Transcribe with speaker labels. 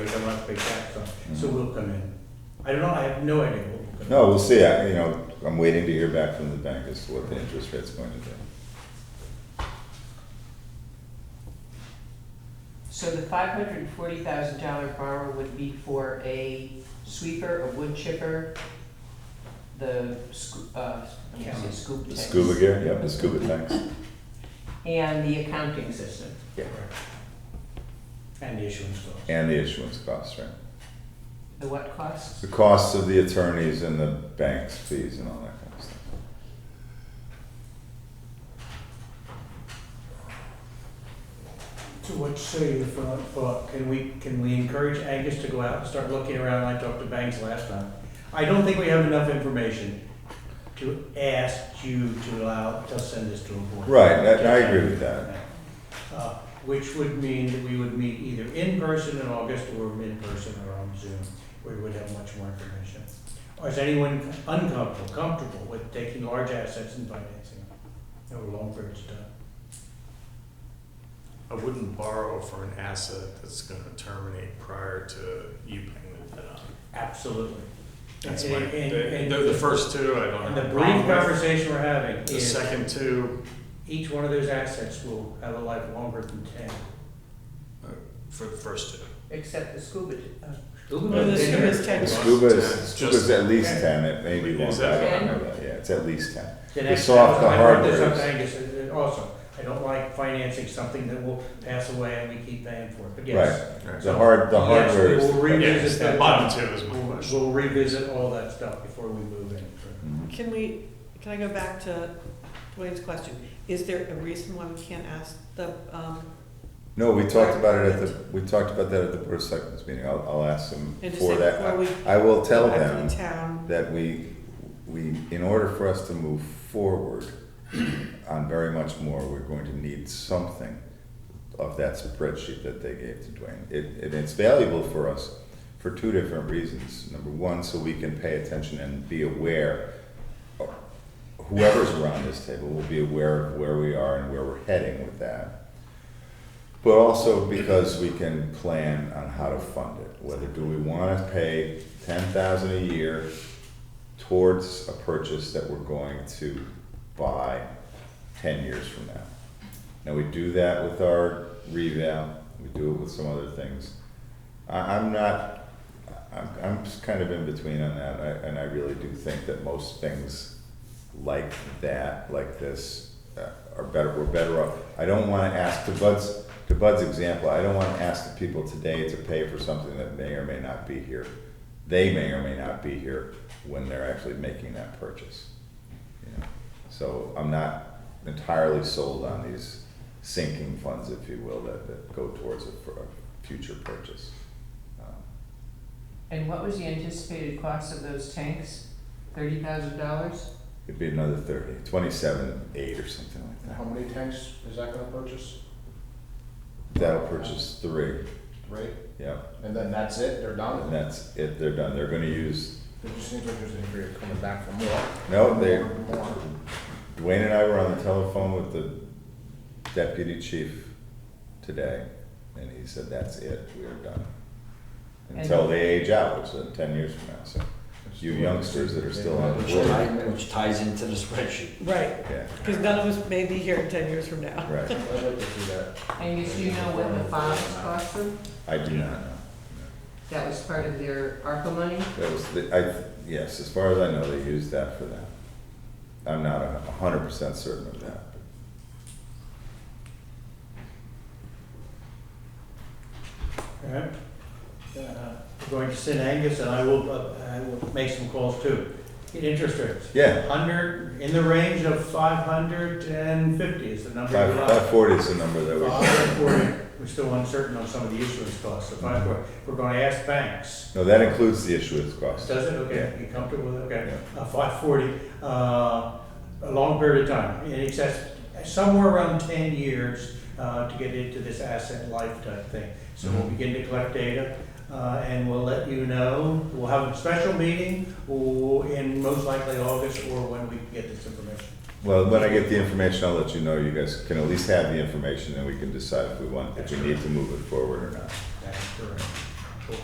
Speaker 1: we'll have to pay tax on, so we'll come in. I don't know, I have no idea what we're gonna.
Speaker 2: No, we'll see, I, you know, I'm waiting to hear back from the bank as to what the interest rate's going to be.
Speaker 3: So the five hundred and forty thousand dollar borrow would be for a sweeper, a wood chipper, the scoop, uh, let me say scoop
Speaker 2: The
Speaker 3: tanks.
Speaker 2: scuba gear, yep, the scuba tanks,
Speaker 3: And the accounting system.
Speaker 1: And the issuance cost.
Speaker 2: and the issuance costs, right?
Speaker 3: The what costs?
Speaker 2: The costs of the attorneys and the bank's fees and all that kind of stuff.
Speaker 1: So what say you for, for, can we, can we encourage Angus to go out and start looking around, I talked to Banks last time. I don't think we have enough information to ask you to allow, to send this to a board.
Speaker 2: Right, I, I agree with that.
Speaker 1: Uh, Which would mean that we would meet either in person in August or in person or on Zoom, where we would have much more information. Or is anyone uncomfortable, comfortable with taking large assets and financing them over long periods of time?
Speaker 4: I wouldn't borrow for an asset that's gonna terminate prior to you paying the debt on.
Speaker 1: Absolutely.
Speaker 4: That's
Speaker 1: And-
Speaker 4: my,
Speaker 1: and-
Speaker 4: the,
Speaker 1: and-
Speaker 4: the- the first two, I don't
Speaker 1: And
Speaker 4: have.
Speaker 1: the
Speaker 4: a
Speaker 1: brief
Speaker 4: problem with.
Speaker 1: conversation we're having
Speaker 4: The
Speaker 1: is
Speaker 4: second two,
Speaker 1: each one of those assets will have a life longer than ten.
Speaker 4: for the first two.
Speaker 3: Except the scuba, uh,
Speaker 5: Well, the scuba is
Speaker 2: The
Speaker 5: ten,
Speaker 2: scuba is,
Speaker 4: It's just-
Speaker 2: scuba's at least ten, it may be
Speaker 4: Is
Speaker 2: longer,
Speaker 4: that-
Speaker 2: I don't know that, yeah, it's at least ten.
Speaker 1: The
Speaker 2: The
Speaker 1: next, I
Speaker 2: soft, the
Speaker 1: brought this
Speaker 2: hard
Speaker 1: up to Angus uh, uh, also, I don't like financing something that will pass away and we keep paying for it, but yes.
Speaker 2: Right,
Speaker 4: Right.
Speaker 2: the hard, the
Speaker 1: Yes,
Speaker 2: hardware is.
Speaker 1: we will revisit
Speaker 4: Yes,
Speaker 1: that.
Speaker 4: the bottom two is my
Speaker 1: We'll
Speaker 4: question.
Speaker 1: we'll revisit all that stuff before we move in.
Speaker 2: Mhm.
Speaker 5: Can we, can I go back to Dwayne's question? Is there a reason why we can't ask the, um,
Speaker 2: No, we talked about it at the, we talked about that at the Board of Selectmen's meeting, I'll, I'll ask them
Speaker 5: and just
Speaker 2: for
Speaker 5: say
Speaker 2: that.
Speaker 5: before we
Speaker 2: I- I will tell
Speaker 5: go
Speaker 2: them.
Speaker 5: back to the town?
Speaker 2: that we, we, in order for us to move forward on very much more, we're going to need something of that spreadsheet that they gave to Dwayne. It, and it's valuable for us for two different reasons. Number one, so we can pay attention and be aware, of- whoever's around this table will be aware of where we are and where we're heading with that. But also because we can plan on how to fund it, whether do we wanna pay ten thousand a year towards a purchase that we're going to buy ten years from now. Now, we do that with our revamp, we do it with some other things. I, I'm not, I'm, I'm just kind of in between on that, I, and I really do think that most things like that, like this, uh, are better, we're better off. I don't wanna ask, to Bud's, to Bud's example, I don't wanna ask the people today to pay for something that may or may not be here. They may or may not be here when they're actually making that purchase. you know. So I'm not entirely sold on these sinking funds, if you will, that, that go towards a, for a future purchase. Um,
Speaker 3: and what was the anticipated cost of those tanks? Thirty thousand dollars?
Speaker 2: It'd be another thirty, twenty-seven, eight or something like
Speaker 6: How
Speaker 2: that.
Speaker 6: many tanks is that gonna purchase,
Speaker 2: That'll purchase three,
Speaker 6: right?
Speaker 2: yeah,
Speaker 6: And then that's it, they're
Speaker 2: and
Speaker 6: done?
Speaker 2: that's it, they're done, they're gonna use,
Speaker 6: It just seems like there's an area coming back for more.
Speaker 2: no, they,
Speaker 6: More.
Speaker 2: Dwayne and I were on the telephone with the deputy chief today, and he said, that's it, we are done.
Speaker 3: And-
Speaker 2: Until they age out, which is ten years from now, so, you youngsters that are still on the
Speaker 7: Which
Speaker 2: board,
Speaker 7: tie- Which ties into the spreadsheet.
Speaker 5: Right,
Speaker 2: yeah,
Speaker 5: because none of us may be here in ten years from now.
Speaker 2: right,
Speaker 6: I'd like to see that.
Speaker 3: Angus, do you know what the bonds cost them?
Speaker 2: I do not know.
Speaker 3: That was part of their ARPA money?
Speaker 2: That was the, I, yes, as far as I know, they used that for that. I'm not a hundred percent certain of that.
Speaker 1: Alright. Uh, we're Going to send Angus and I will, uh, I will make some calls too. Get interest rates.
Speaker 2: Yeah,
Speaker 1: Hundred, in the range of five hundred and fifty is the number
Speaker 2: five,
Speaker 1: we like.
Speaker 2: five forty is the number that we,
Speaker 1: Five forty, we're still uncertain on some of the issuance costs, so five forty, we're gonna ask banks.
Speaker 2: no, that includes the issuance cost.
Speaker 1: Does it, okay, you comfortable with it, okay, five forty, uh, a long period of time, in excess, somewhere around ten years, uh, to get into this asset life type thing. So we'll begin to collect data, uh, and we'll let you know, we'll have a special meeting, or in most likely August, or when we can get this information.
Speaker 2: Well, when I get the information, I'll let you know, you guys can at least have the information, and we can decide if we want, if we need to move it forward or not.
Speaker 1: Uh, That's correct.